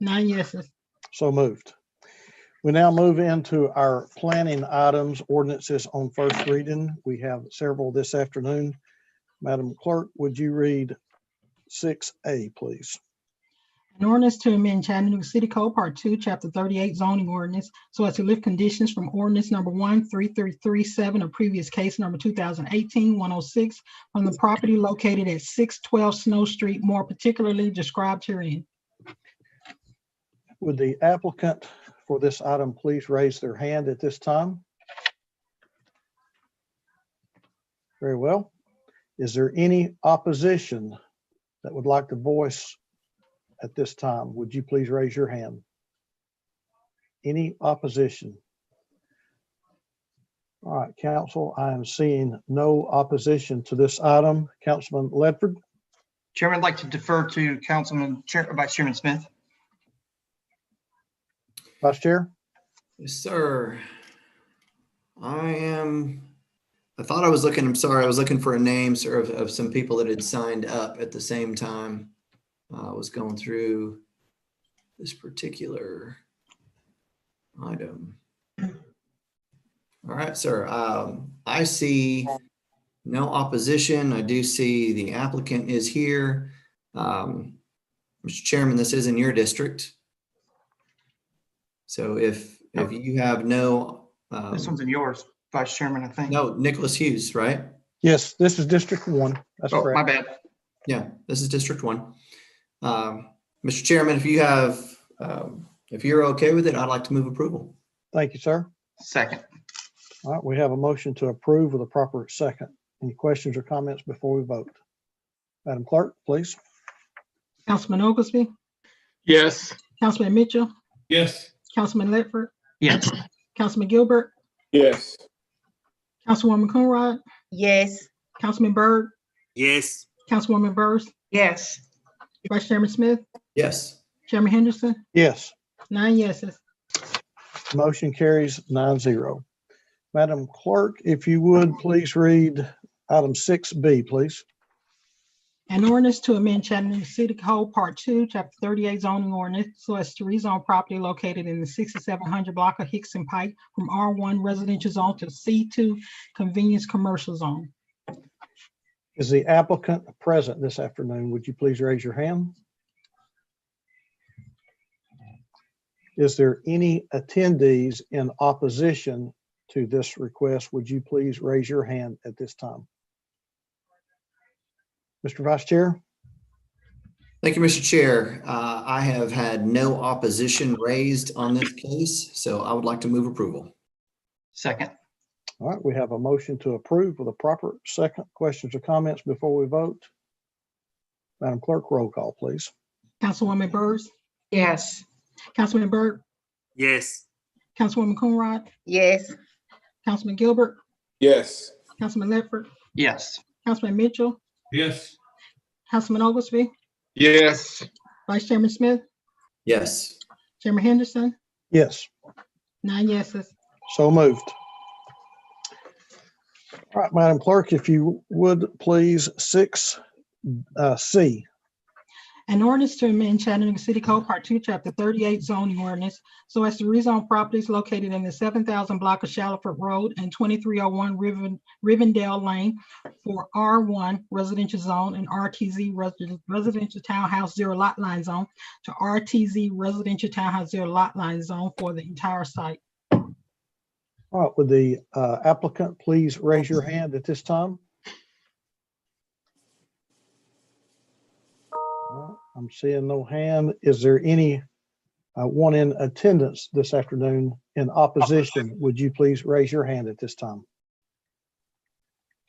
Nine yeses. So moved. We now move into our planning items, ordinances on first reading. We have several this afternoon. Madam Clerk, would you read six A, please? An ordinance to amend Chattanooga City Code Part Two, Chapter thirty-eight zoning ordinance so as to lift conditions from ordinance number one three three three seven of previous case number 2018-106 on oh the property located at six twelve Snow Street, more particularly described herein. Would the applicant for this item please raise their hand at this time? Very well. Is there any opposition that would like to voice at this time? Would you please raise your hand? Any opposition? All right, council, I am seeing no opposition to this item. Councilman Ledford, Chairman, I'd like to defer to Councilman, Chair- uh, Vice Chairman Smith. Vice Chair? Yes, sir. I am, I thought I was looking, I'm sorry, I was looking for a name, sir, of, of some people that had signed up at the same time. Uh, I was going through this particular item. All right, sir. Um, I see no opposition. I do see the applicant is here. Um, Mr. Chairman, this is in your district. So if, if you have no, Oh. um, This one's in yours, Vice Chairman, I think. no, Nicholas Hughes, right? Yes, this is District One. That's Oh, correct. my bad. Yeah, this is District One. Um, Mr. Chairman, if you have, um, if you're okay with it, I'd like to move approval. Thank you, sir. Second. All right, we have a motion to approve with a proper second. Any questions or comments before we vote? Madam Clerk, please. Councilman Oglesby, Yes. Councilman Mitchell, Yes. Councilman Ledford, Yes. Councilman Gilbert, Yes. Councilwoman Coonrod, Yes. Councilman Byrd, Yes. Councilwoman Byrd, Yes. Vice Chairman Smith, Yes, Chairman Henderson, Yes, nine yeses. motion carries nine zero. Madam Clerk, if you would, please read item six B, please. An ordinance to amend Chattanooga City Code Part Two, Chapter thirty-eight zoning ordinance so as to rezone property located in the sixty-seven hundred block of Hickson Pike from R one residential zone to C two convenience commercial zone. Is the applicant present this afternoon? Would you please raise your hand? Is there any attendees in opposition to this request? Would you please raise your hand at this time? Mr. Vice Chair? thank you, Mr. Chair. Uh, I have had no opposition raised on this case, so I would like to move approval. Second. All right, we have a motion to approve with a proper second. Questions or comments before we vote? Madam Clerk, roll call, please. Councilwoman Byrd, Yes. Councilman Byrd, Yes. Councilwoman Coonrod, Yes. Councilman Gilbert, Yes. Councilman Ledford, Yes. Councilman Mitchell, Yes. Councilman Oglesby, Yes. Vice Chairman Smith, Yes, Chairman Henderson, Yes, nine yeses. so moved. All right, Madam Clerk, if you would, please, six, uh, C. An ordinance to amend Chattanooga City Code Part Two, Chapter thirty-eight zoning ordinance so as to rezone properties located in the seven thousand block of Shallowford Road and twenty-three oh one Riven, Rivendell Lane for R one residential zone and RTZ resi- residential townhouse zero lot line zone to RTZ residential townhouse zero lot line zone for the entire site. All right, would the uh, applicant please raise your hand at this time? All right, I'm seeing no hand. Is there any uh, one in attendance this afternoon in opposition? Would you please raise your hand at this time?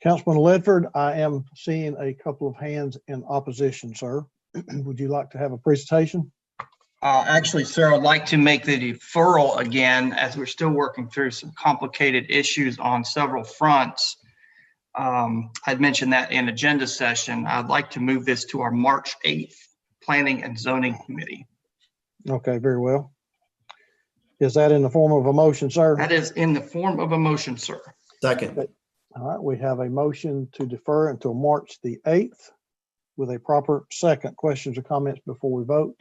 Councilman Ledford, I am seeing a couple of hands in opposition, sir. Would you like to have a presentation? Uh, Actually, sir, I'd like to make the deferral again, as we're still working through some complicated issues on several fronts. Um, I'd mentioned that in agenda session. I'd like to move this to our March 8th Planning and Zoning Committee. Okay, very well. Is that in the form of a motion, sir? That is in the form of a motion, sir. second. All right, we have a motion to defer until March the 8th with a proper second. Questions or comments before we vote?